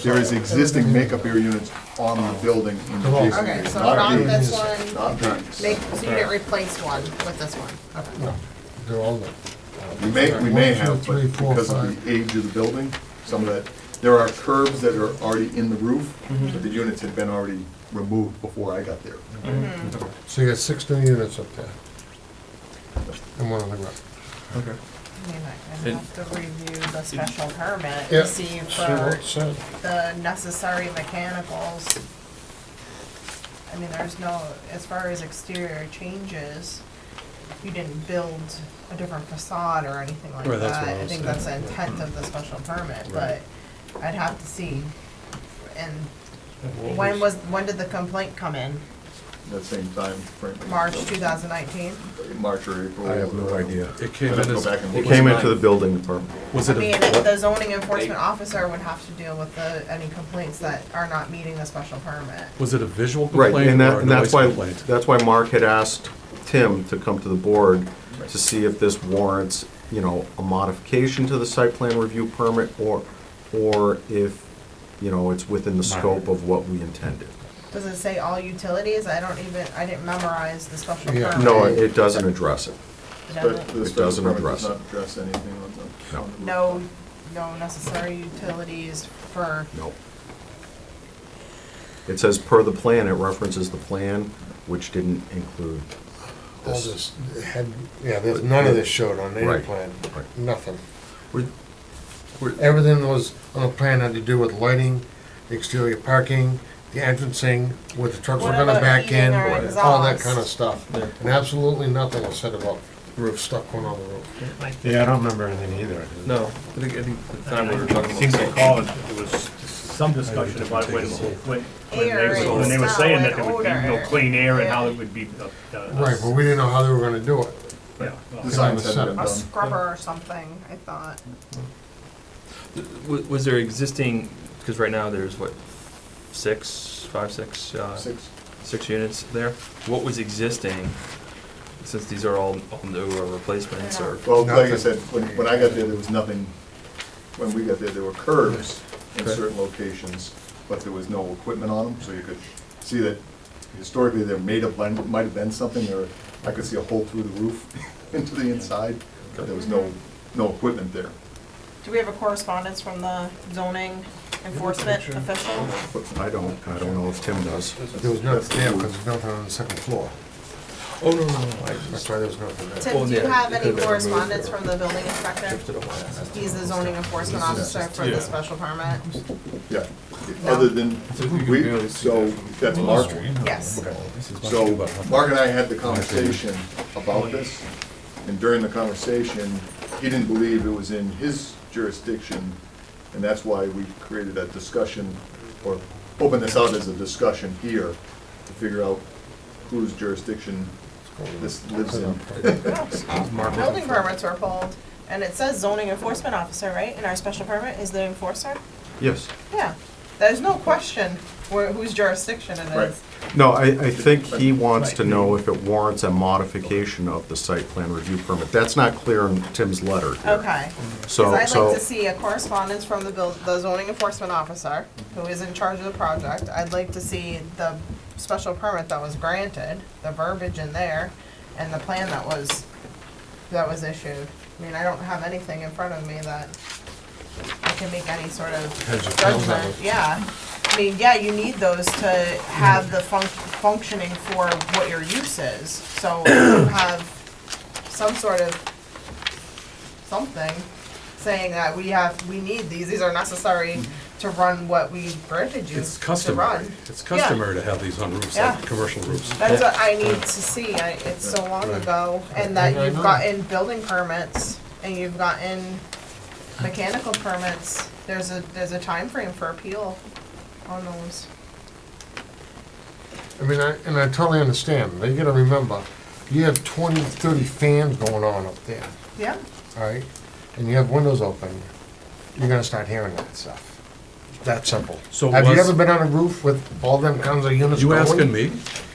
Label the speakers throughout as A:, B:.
A: There is existing makeup air units on the building in the adjacent
B: Okay,
A: area,
B: so
A: not
B: not
A: these,
B: this one,
A: Not these.
B: make, so you didn't replace one with this one, okay.
C: They're all there.
A: We may, we may
C: One, two,
A: have, but
C: three, four,
A: because of
C: five.
A: the age of the building, some of that, there are curbs that are already in the roof,
C: Mm-hmm.
A: but the units had been already removed before I got there.
C: Mm-hmm. So you got six new units up there. And one on the ground.
D: Okay.
B: I mean, I
D: It-
B: have to review the special permit
C: Yeah.
B: to see
C: See what
B: for
C: it said.
B: the necessary mechanicals. I mean, there's no, as far as exterior changes, you didn't build a different facade or anything like
E: Right, that's what
B: that.
E: I
B: I
E: was saying,
B: think that's the intent of the special permit, but I'd have to see. And when was, when did the complaint come in?
A: That same time frame.
B: March two thousand nineteen?
A: March or April.
F: I have no idea.
E: It
A: I'd
E: came
A: have
E: in
A: to go
E: as,
A: back and
E: it
A: look.
F: Came into the building department.
E: was
B: I
E: it
B: mean,
E: a,
B: the zoning enforcement officer would have to deal with the, any complaints that are not meeting the special permit.
E: was it a visual
F: Right,
E: complaint
F: and
E: or
F: that,
E: a
F: and that's
E: noise
F: why,
E: complaint?
F: that's why Mark had asked Tim to come to the board to see if this warrants, you know, a modification to the site plan review permit or, or if, you know, it's within the scope of what we intended.
B: Does it say all utilities? I don't even, I didn't memorize the special
C: Yeah.
B: permit.
F: No, it doesn't address it.
B: It
A: But
B: doesn't-
A: the
F: It
A: special
F: doesn't
A: permit
F: address
A: does
F: it.
A: not address anything on the.
F: No.
A: on the roof.
B: No, no necessary utilities for,
F: No. It says per the plan, it references the plan, which didn't include
C: All
F: this.
C: this had, yeah, there's, none of this showed on any
F: Right,
C: plan,
F: right.
C: nothing.
F: We're- we're-
C: Everything that was on the plan had to do with lighting, exterior parking, the entrancing, where the trucks were
B: What
C: gonna
B: about
C: back
B: heating
C: in,
B: or
C: all that
B: exhaust?
C: kinda stuff.
D: Yeah.
C: And absolutely nothing was said about roof, stuff going on the roof.
G: Yeah, I don't remember anything either.
D: No, I think, I think at the time we were
G: I
D: talking about.
G: seem to
D: something.
G: recall it it was some discussion about when, when, when they
B: Air
G: were-
B: and
G: when they were
B: smell
G: saying
B: and
G: that there would be no
B: odor.
G: clean air and how
B: Yeah.
G: it would be. uh, uh,
C: Right, but we didn't know how they were gonna do it.
G: yeah, well,
A: Designs haven't been
B: a
A: done.
B: scrubber or something, I thought.
D: W- Was there existing, because right now there's what, six, five, six, uh,
A: Six.
D: six units there? What was existing, since these are all all new or replacements or?
A: Well, like I
C: Nothing.
A: said, when, when I got there, there was nothing, when we got there, there were curbs in certain locations, but there was no equipment on them, so you could see that historically there may have been, might have been something, or I could see a hole through the roof into the inside, but there was no, no equipment there.
B: Do we have a correspondence from the zoning enforcement official?
F: But I don't, I don't know if Tim does.
C: There was nothing there, because there's nothing on the second floor.
D: Oh, no, no, no, I
C: That's why there was nothing there.
B: Tim,
D: Well,
B: do you
D: yeah,
B: have
D: it
B: any
D: could've been removed
B: correspondence
D: or-
B: from the building inspector?
D: shifted it away.
B: He's the zoning enforcement officer for
D: Yeah.
B: the special permit.
A: Yeah, other than,
D: So you can
A: we,
D: barely see
A: so,
D: that from-
A: that's Mark,
B: Yes.
A: So Mark and I had the conversation about this, and during the conversation, he didn't believe it was in his jurisdiction, and that's why we created that discussion, or opened this out as a discussion here, to figure out whose jurisdiction this lives in.
B: Building permits were pulled, and it says zoning enforcement officer, right? And our special permit is the enforcer?
F: Yes.
B: Yeah, there's no question where, whose jurisdiction it
A: Right.
B: is.
F: No, I, I think he wants to know if it warrants a modification of the site plan review permit. That's not clear in Tim's letter here.
B: Okay, because
F: So,
B: I'd like
F: so,
B: to see a correspondence from the buil- the zoning enforcement officer, who is in charge of the project. I'd like to see the special permit that was granted, the verbiage in there, and the plan that was, that was issued. I mean, I don't have anything in front of me that I can make any sort
C: Has
B: of
C: it filled
B: judgment,
C: out?
B: yeah. I mean, yeah, you need those to have the func- functioning for what your use is, so you have some sort of something saying that we have, we need these, these are necessary to run what we granted you
E: Mm-hmm. It's
B: to
E: customary,
B: run.
E: it's customary to have these on roofs, like
B: Yeah.
E: commercial roofs.
B: That's what I need to see, I, it's so long ago, and that
C: Right.
B: you've gotten building permits, and you've gotten mechanical permits, there's a, there's a time frame for appeal on those.
C: I mean, I, and I totally understand, but you gotta remember, you have 20, 30 fans going on up there,
B: Yeah,
C: all right? And you have windows open, you're gonna start hearing that stuff. That simple.
E: So
C: Have you
E: was-
C: ever been on a roof with all them kinds of units
E: You
C: going?
E: asking me?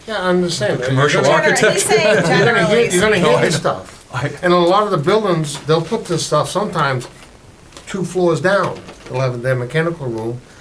C: Yeah, I understand.
E: Commercial
C: You're gonna-
B: Gener- he's saying
C: You're gonna hear, you're
B: generally,
C: gonna hear this stuff.
E: I,
C: And a lot of the buildings, they'll put this stuff sometimes two floors down. They'll have their mechanical room,